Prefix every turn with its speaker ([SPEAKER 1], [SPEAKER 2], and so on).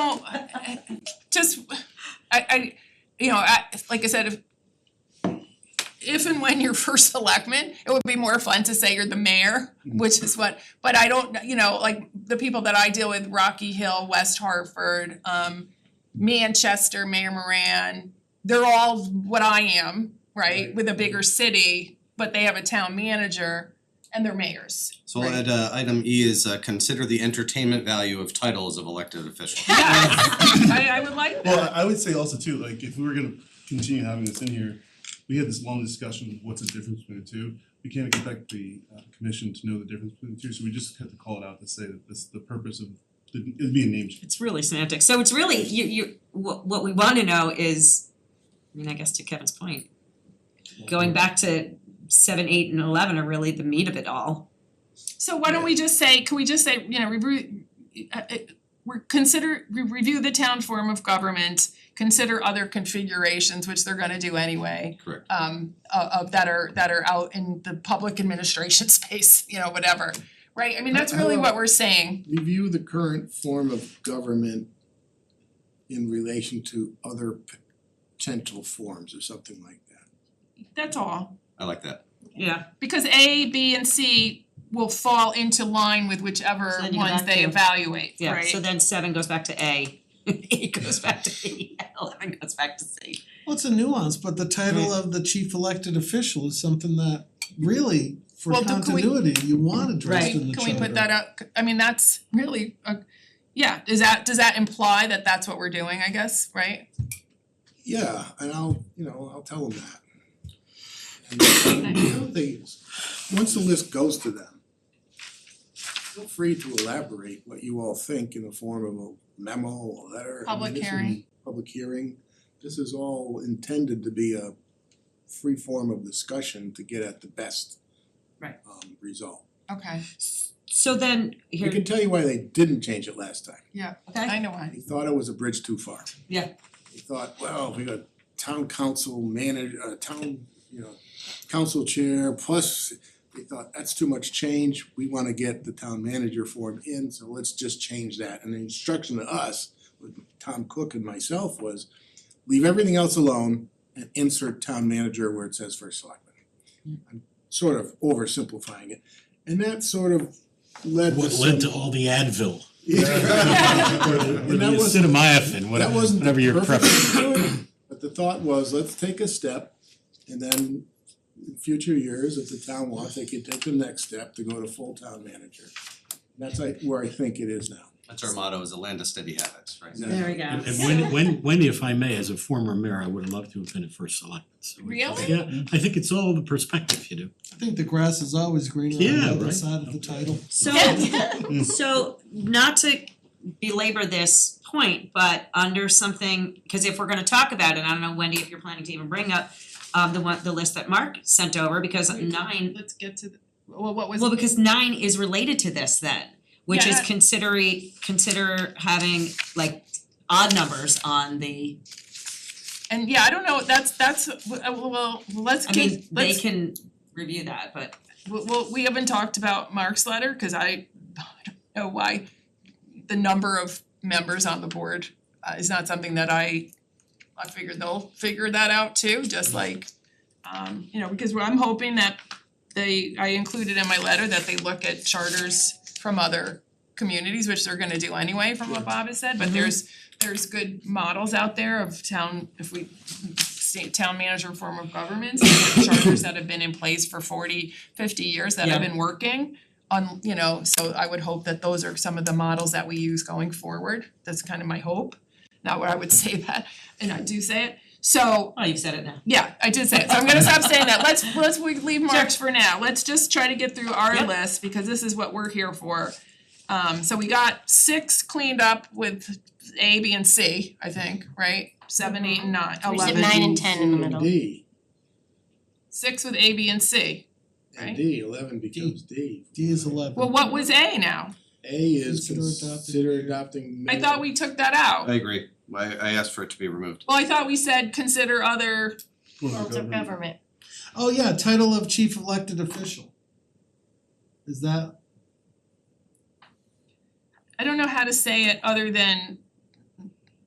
[SPEAKER 1] I- I- just, I I, you know, I, like I said, if if and when you're first selectman, it would be more fun to say you're the mayor, which is what, but I don't, you know, like the people that I deal with, Rocky Hill, West Hartford, um Manchester, Mayor Moran, they're all what I am, right,
[SPEAKER 2] Right.
[SPEAKER 1] with a bigger city, but they have a town manager and they're mayors.
[SPEAKER 2] So we'll add uh item E is uh consider the entertainment value of titles of elected officials.
[SPEAKER 1] Yes, I I would like that.
[SPEAKER 3] Well, I I would say also too, like if we were gonna continue having this in here, we had this long discussion of what's the difference between the two. We can't expect the uh commission to know the difference between the two, so we just have to call it out to say that this, the purpose of, it'd be a name change.
[SPEAKER 4] It's really semantic, so it's really, you you, what what we wanna know is, I mean, I guess to Kevin's point, going back to seven, eight and eleven are really the meat of it all.
[SPEAKER 1] So why don't we just say, can we just say, you know, review, uh, uh, we're consider, re- review the town form of government, consider other configurations, which they're gonna do anyway,
[SPEAKER 2] Correct.
[SPEAKER 1] um, of of that are, that are out in the public administration space, you know, whatever, right? I mean, that's really what we're saying.
[SPEAKER 5] review the current form of government in relation to other potential forms or something like that.
[SPEAKER 1] That's all.
[SPEAKER 2] I like that.
[SPEAKER 4] Yeah.
[SPEAKER 1] Because A, B, and C will fall into line with whichever
[SPEAKER 4] So then you go
[SPEAKER 1] ones
[SPEAKER 4] back
[SPEAKER 1] they
[SPEAKER 4] to-
[SPEAKER 1] evaluate, right?
[SPEAKER 4] Yeah, so then seven goes back to A, eight goes back to E, eleven goes back to C.
[SPEAKER 6] Well, it's a nuance, but the title of the chief elected official is something that really, for
[SPEAKER 1] Well, do- can we-
[SPEAKER 6] continuity, you want addressed in the charter.
[SPEAKER 1] Can we put that out, I mean, that's really, a yeah, does that, does that imply that that's what we're doing, I guess, right?
[SPEAKER 5] Yeah, and I'll, you know, I'll tell them that. And the other thing is, once the list goes to them, feel free to elaborate what you all think in the form of a memo, a letter. I mean,
[SPEAKER 1] Public
[SPEAKER 5] this is-
[SPEAKER 1] hearing.
[SPEAKER 5] Public hearing, this is all intended to be a free form of discussion to get at the best
[SPEAKER 4] Right.
[SPEAKER 5] um result.
[SPEAKER 1] Okay,
[SPEAKER 4] So then,
[SPEAKER 5] I
[SPEAKER 4] here,
[SPEAKER 5] can tell you why they didn't change it last time.
[SPEAKER 1] I
[SPEAKER 4] okay,
[SPEAKER 1] know why.
[SPEAKER 5] They thought it was a bridge too far.
[SPEAKER 4] Yeah.
[SPEAKER 5] They thought, well, we got town council manager, uh town, you know, council chair, plus they thought that's too much change, we wanna get the town manager form in, so let's just change that. And the instruction to us, with Tom Cook and myself was, leave everything else alone and insert town manager where it says first selectman. I'm sort of oversimplifying it, and that sort of led to
[SPEAKER 7] What led to
[SPEAKER 5] some-
[SPEAKER 7] all the Advil,
[SPEAKER 5] Yeah.
[SPEAKER 7] or the or
[SPEAKER 5] And
[SPEAKER 7] the
[SPEAKER 5] that wasn't-
[SPEAKER 7] acetaminophen,
[SPEAKER 5] That
[SPEAKER 7] whatever,
[SPEAKER 5] wasn't the
[SPEAKER 7] whatever your
[SPEAKER 5] perfect
[SPEAKER 7] preference.
[SPEAKER 5] solution, But the thought was, let's take a step and then in future years, if the town wants, they could take the next step to go to full town manager. That's like where I think it is now.
[SPEAKER 2] That's our motto is a land of steady habits, right?
[SPEAKER 5] Yeah.
[SPEAKER 4] there we go.
[SPEAKER 7] And when, when, when, if I may, as a former mayor, I would have loved to have been a first selectman, so. it's-
[SPEAKER 1] Really?
[SPEAKER 7] Yeah, I think it's all the perspective, you know.
[SPEAKER 6] I think the grass is always greener on
[SPEAKER 7] Yeah,
[SPEAKER 6] the other
[SPEAKER 7] right.
[SPEAKER 6] side of the title.
[SPEAKER 4] So
[SPEAKER 1] Yeah.
[SPEAKER 4] so not to belabor this point, but under something, cause if we're gonna talk about it, I don't know, Wendy, if you're planning to even bring up um the one, the list that Mark sent over, because nine,
[SPEAKER 1] Let's get to, the well, what was,
[SPEAKER 4] well, because nine is related to this then, which is
[SPEAKER 1] Yeah.
[SPEAKER 4] considering, consider having like odd numbers on the,
[SPEAKER 1] and yeah, I don't know, that's, that's, uh, well, let's
[SPEAKER 4] I
[SPEAKER 1] get,
[SPEAKER 4] mean, they
[SPEAKER 1] let's
[SPEAKER 4] can review that, but
[SPEAKER 1] Well, well, we haven't talked about Mark's letter, cause I, I don't know why the number of members on the board uh, is not something that I, I figured they'll figure that out too, just like, um, you know, because what I'm hoping that they, I included in my letter that they look at charters from other communities, which they're gonna do anyway, from what Bob has said, but there's, there's good models out there of town, if we state town manager form of governments, and charters that have been in place for 40, 50 years that have
[SPEAKER 4] Yeah.
[SPEAKER 1] been working. On, you know, so I would hope that those are some of the models that we use going forward, that's kind of my hope. Not where I would say that, and I do say it, so
[SPEAKER 4] oh, you've said it now.
[SPEAKER 1] yeah, I did say it, so I'm gonna stop saying that, let's let's we leave March for now, let's just try to get through our
[SPEAKER 4] Yep.
[SPEAKER 1] list, because this is what we're here for. Um so we got six cleaned up with A, B, and C, I think, right? Seven, eight, and nine, eleven.
[SPEAKER 8] nine and 10 in the middle.
[SPEAKER 5] D,
[SPEAKER 1] Six with A, B, and C.
[SPEAKER 5] and D, eleven becomes D.
[SPEAKER 6] D is eleven.
[SPEAKER 1] Well, what was A now?
[SPEAKER 5] A is
[SPEAKER 6] Consider adopting.
[SPEAKER 5] consider adopting.
[SPEAKER 1] I thought we took that out.
[SPEAKER 2] I agree. I I asked for it to be removed.
[SPEAKER 1] Well, I thought we said consider other,
[SPEAKER 8] Forms
[SPEAKER 3] Mm-hmm.
[SPEAKER 8] of government.
[SPEAKER 6] Oh, yeah, title of chief elected official. Is that,
[SPEAKER 1] I don't know how to say it other than